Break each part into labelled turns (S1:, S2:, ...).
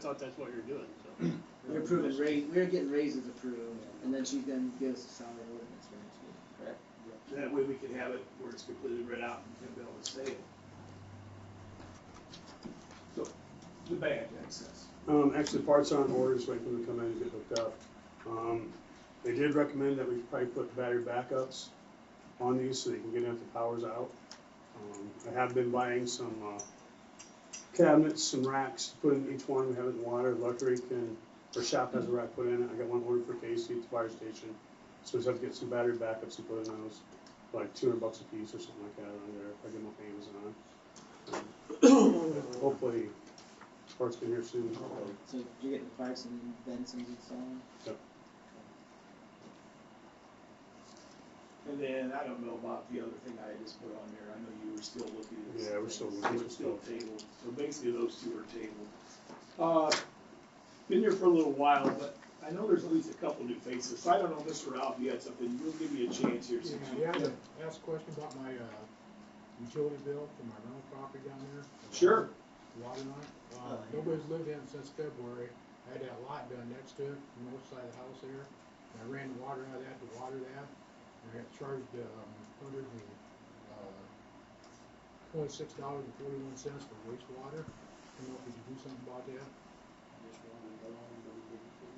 S1: thought that's what you're doing, so.
S2: We're approving raise, we're getting raises approved, and then she's gonna give us a salary ordinance for next year, correct?
S1: That way we could have it where it's completely read out and they'll be able to say it. So, the bad access.
S3: Um, actually, parts are on order, just waiting for them to come in and get hooked up. Um, they did recommend that we probably put battery backups on these so they can get in if the power's out. Um, I have been buying some, uh, cabinets, some racks, to put in each one, we have it in water, Luckily, can, or shop has a rack put in it, I got one ordered for Casey at the fire station. So we just have to get some battery backups and put in those, like two hundred bucks a piece or something like that on there, if I get them off Amazon. Um, Hopefully, parts can here soon.
S2: So you're getting the price and then some installing?
S1: And then, I don't know about the other thing I had just put on there, I know you were still looking at.
S3: Yeah,
S1: some
S3: we're still
S1: things. They
S3: looking
S1: were
S3: at
S1: still
S3: stuff.
S1: tabled, so basically those two are tabled. Uh, been here for a little while, but I know there's at least a couple new faces, so I don't know, Mr. Ralph, you had something, we'll give you a chance here
S4: Yeah,
S1: since you.
S4: you had to ask a question about my, uh, utility bill for my rental property down there.
S1: Sure.
S4: Water line, uh, nobody's lived in it since February, I had that lot done next to it, the north side of the house there, and I ran the water out of that to water that, and I got charged, um, hundred and, uh, twenty-six dollars and forty-one cents for wastewater, I don't know if you could do something about that.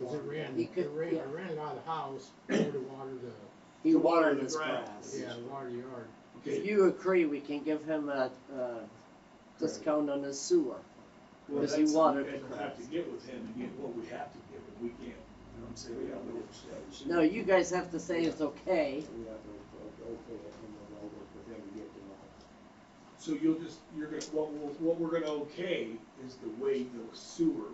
S4: Cause it ran,
S2: He
S4: it
S2: could-
S4: ran,
S2: yeah.
S4: I ran it out of the house, over to water the,
S2: He
S1: watered
S2: watered
S1: his
S2: his
S1: grass.
S2: grass.
S4: yeah, the water yard.
S2: If you agree, we can give him a, uh, discount on his sewer.
S1: Well,
S2: Because he
S1: that's-
S2: wanted
S1: and
S2: to-
S1: we'll have to get with him and get what we have to give him, we can't, you know what I'm saying, we don't know what to say.
S2: No, you guys have to say it's okay.
S5: We have to o- okay it and then I'll work with them to get them all.
S1: So you'll just, you're gonna, what, we'll- what we're gonna okay is the way the sewer,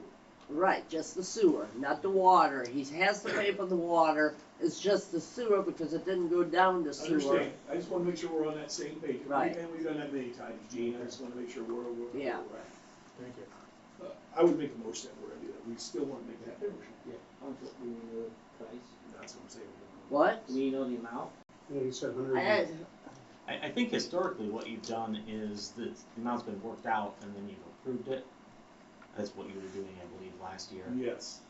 S2: Right, just the sewer, not the water. He has to pay for the water. It's just the sewer because it didn't go down to
S1: I
S2: sewer.
S1: understand, I just wanna make sure we're on that same page.
S2: Right.
S1: And we've done that many times, Gene, I just wanna make sure we're, we're. we're
S2: Yeah.
S1: right.
S4: Thank you.
S1: Uh, I would make a motion that we're gonna do that, we still wanna make that motion,
S6: How much do we know the price?
S1: that's what I'm saying.
S2: What?
S6: Do we know the amount?
S3: Yeah, you said hundred.
S2: I had,
S7: I, I think historically what you've done is that the amount's been worked out and then you've approved it. That's what you were doing, I believe, last year.
S1: Yes,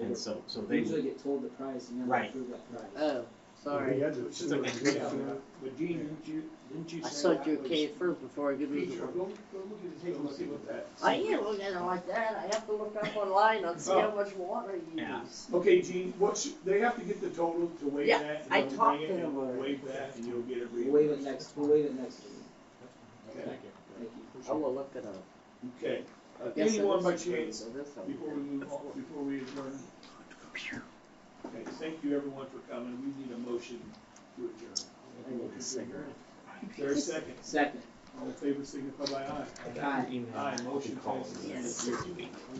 S7: And so, so
S6: They
S7: they,
S6: usually get told the price and never
S7: Right. Uh,
S6: approve that price.
S2: oh, sorry.
S1: yeah,
S3: Sorry.
S5: But Gene, didn't you, didn't you
S2: I
S5: say
S2: thought
S5: that
S2: you
S5: was-
S2: okay first before I give you the
S1: Peter,
S2: one.
S1: go, go look at his,
S5: Take a
S1: bill and
S5: look
S1: see
S5: at
S1: what that.
S2: I can't look at it like that. I have to look up online and see how much water you
S7: Yeah.
S2: use.
S1: Okay, Gene, what should, they have to get the total to waive
S2: Yeah,
S1: that? and
S2: I
S1: they'll bring
S2: talked
S1: it
S2: to
S1: and
S2: him
S1: we'll
S2: already.
S1: Waive that and you'll get it
S6: We'll
S1: reimbursed.
S6: waive it next, we'll waive it next week.
S1: Okay,
S4: Thank you.
S6: Thank you.
S2: I will look it up.
S1: okay.
S2: I guess it
S1: Anyone by
S2: is free,
S1: chance,
S2: so this I'll-
S1: before we move on, before we adjourn? Okay, thank you everyone for coming. We need a motion to adjourn.
S2: I need a cigarette.
S1: Is there a second?
S6: Second.
S1: All in favor, signify by aye.
S7: email.
S1: Aye, motion
S7: calls
S1: passes.
S7: in the next few weeks.